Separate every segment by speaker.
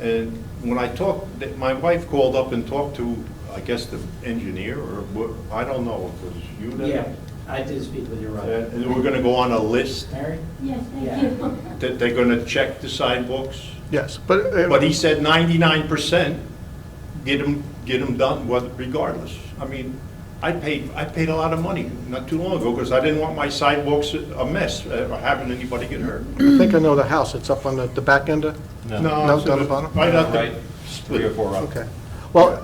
Speaker 1: And when I talked, th- my wife called up and talked to, I guess, the engineer, or, wha- I don't know, because you
Speaker 2: Yeah,
Speaker 1: didn't.
Speaker 2: I did speak with your
Speaker 1: And
Speaker 2: brother.
Speaker 1: and we're gonna go on a list
Speaker 2: Mary?
Speaker 3: Yes,
Speaker 2: Yeah.
Speaker 3: thank you.
Speaker 1: that they're gonna check the sidewalks.
Speaker 4: Yes, but. uh,
Speaker 1: But he said ninety-nine percent, get them, get them done what- regardless. I mean, I paid, I paid a lot of money not too long ago, because I didn't want my sidewalks a mess, uh, or having anybody get hurt.
Speaker 4: I think I know the house, it's up on the, the back end of, No,
Speaker 1: No,
Speaker 4: down the bottom?
Speaker 1: right out
Speaker 5: Right,
Speaker 1: there.
Speaker 5: three or four up.
Speaker 4: okay. Well,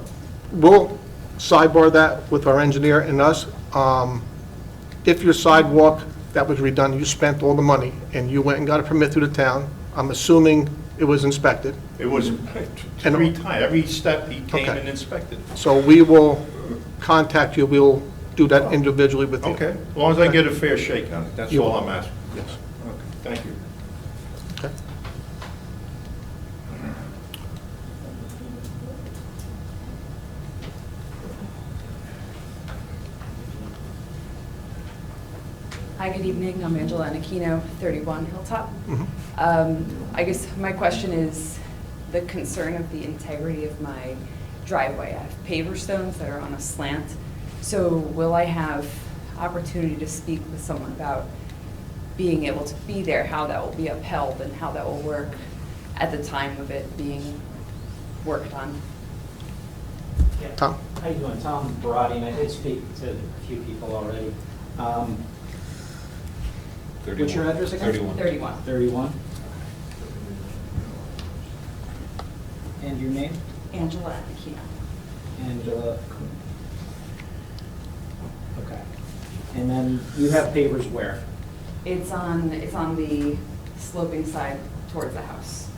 Speaker 4: we'll sidebar that with our engineer and us. Um, If your sidewalk that was redone, you spent all the money, and you went and got a permit through the town, I'm assuming it was inspected,
Speaker 1: It was
Speaker 4: Mm-hmm. And-
Speaker 1: three times, every step he came
Speaker 4: Okay.
Speaker 1: and inspected.
Speaker 4: so we will contact you, we'll do that individually with you.
Speaker 1: Okay, as long as I get a fair shake on it, that's
Speaker 4: You
Speaker 1: all I'm
Speaker 4: will.
Speaker 1: asking.
Speaker 4: Yes.
Speaker 1: Okay, Thank you.
Speaker 4: Okay.
Speaker 6: Hi, good evening. I'm Angela Anacino, 31 Hilltop.
Speaker 4: Mhm.
Speaker 6: Um, I guess my question is the concern of the integrity of my driveway. I have paver stones that are on a slant, so will I have opportunity to speak with someone about being able to be there, how that will be upheld, and how that will work at the time of it being worked on?
Speaker 2: Yeah.
Speaker 4: Tom?
Speaker 2: How you doing? Tom Barati, and I did speak to a few people already. Um, What's your
Speaker 5: 31.
Speaker 2: address again?
Speaker 5: 31.
Speaker 6: 31.
Speaker 2: 31? And your name?
Speaker 6: Angela Anacino.
Speaker 2: Angela. Okay. And then you have papers where?
Speaker 6: It's on, it's on the sloping side towards the house.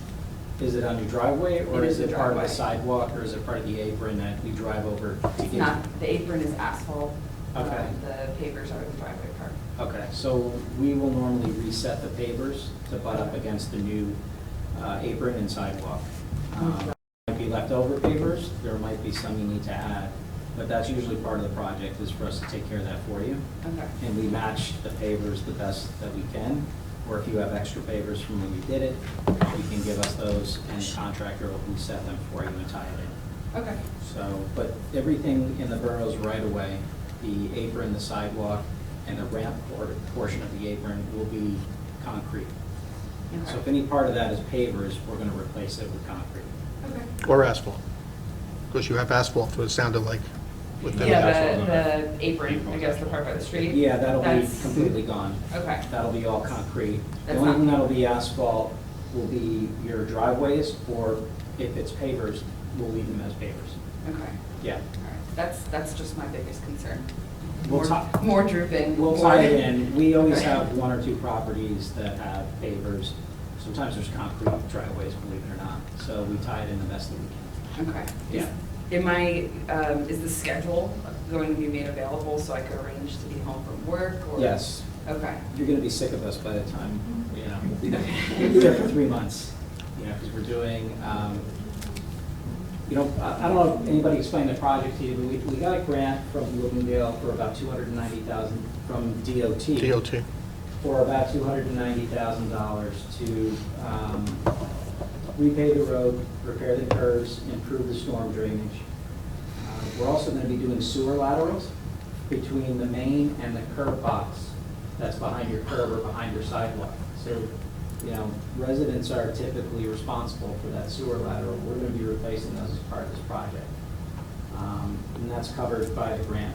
Speaker 2: Is it on your driveway, or
Speaker 6: It
Speaker 2: is
Speaker 6: is
Speaker 2: it
Speaker 6: the
Speaker 2: part of the
Speaker 6: driveway.
Speaker 2: sidewalk, or is it part of the apron that we drive over to
Speaker 6: It's
Speaker 2: get?
Speaker 6: not, the apron is asphalt.
Speaker 2: Okay.
Speaker 6: Uh, The pavers are the driveway part.
Speaker 2: Okay, so we will normally reset the pavers to butt up against the new uh, apron and sidewalk. Um, Might be leftover pavers, there might be some you need to add, but that's usually part of the project, is for us to take care of that for you.
Speaker 6: Okay.
Speaker 2: And we match the pavers the best that we can, or if you have extra pavers from when you did it, you can give us those, and the contractor will reset them for you and tie it in.
Speaker 6: Okay.
Speaker 2: So, but everything in the borough's right of way, the apron, the sidewalk, and the ramp or portion of the apron will be concrete. So if
Speaker 6: Okay.
Speaker 2: any part of that is pavers, we're gonna replace it with concrete.
Speaker 6: Okay.
Speaker 4: Or asphalt? Because you have asphalt, what it sounded like. with the-
Speaker 6: Yeah, the, the apron, I guess, the part by the street.
Speaker 2: Yeah, that'll be
Speaker 6: That's-
Speaker 2: completely gone.
Speaker 6: Okay.
Speaker 2: That'll be all concrete. The
Speaker 6: That's
Speaker 2: only
Speaker 6: not-
Speaker 2: thing that'll be asphalt will be your driveways, or if it's pavers, we'll leave them as pavers.
Speaker 6: Okay.
Speaker 2: Yeah.
Speaker 6: All right. That's, that's just my biggest concern.
Speaker 2: We'll
Speaker 6: More-
Speaker 2: talk-
Speaker 6: More drooping.
Speaker 2: We'll
Speaker 6: more-
Speaker 2: tie it in. We always
Speaker 6: Okay.
Speaker 2: have one or two properties that have pavers. Sometimes there's concrete driveways, believe it or not. So we tie it in the best that we can.
Speaker 6: Okay.
Speaker 2: Yeah.
Speaker 6: Am I, um, is the schedule going to be made available so I could arrange to be home from work or?
Speaker 2: Yes,
Speaker 6: Okay.
Speaker 2: you're going to be sick of us by the time, you know, Mm-hmm. we'll be there for three months, you know, because we're doing, um, you know, I I don't know if anybody explained the project to you, but we, we got a grant from Bloomingdale for about 290,000 from
Speaker 4: DOT.
Speaker 2: for about two hundred and ninety thousand dollars to um, repay the road, repair the curves, improve the storm drainage. Uh, We're also going to be doing sewer laterals between the main and the curb box that's behind your curb or behind your sidewalk. So, you know, residents are typically responsible for that sewer lateral. We're going to be replacing those as part of this project. Um, And that's covered by the grant.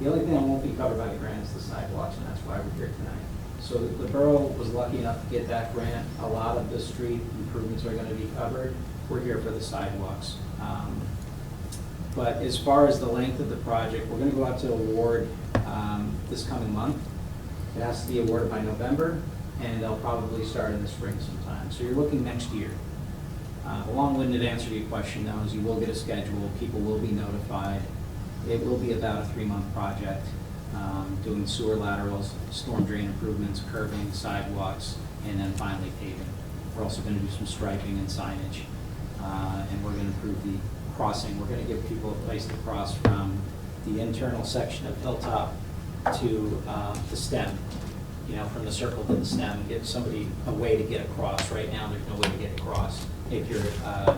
Speaker 2: The only thing that won't be covered by the grant is the sidewalks, and that's why we're here tonight. So the the borough was lucky enough to get that grant. A lot of the street improvements are going to be covered. We're here for the sidewalks. Um, But as far as the length of the project, we're going to go out to award um, this coming month. It has to be awarded by November, and they'll probably start in the spring sometime. So you're looking next year. Uh, A long-winded answer to your question, though, is you will get a schedule, people will be notified. It will be about a three-month project, um, doing sewer laterals, storm drain improvements, curbing, sidewalks, and then finally paving. We're also going to do some striping and signage, uh, and we're going to improve the crossing. We're going to give people a place to cross from the internal section of Hilltop to uh, the stem, you know, from the circle to the stem, give somebody a way to get across. Right now, there's no way to get across if you're uh,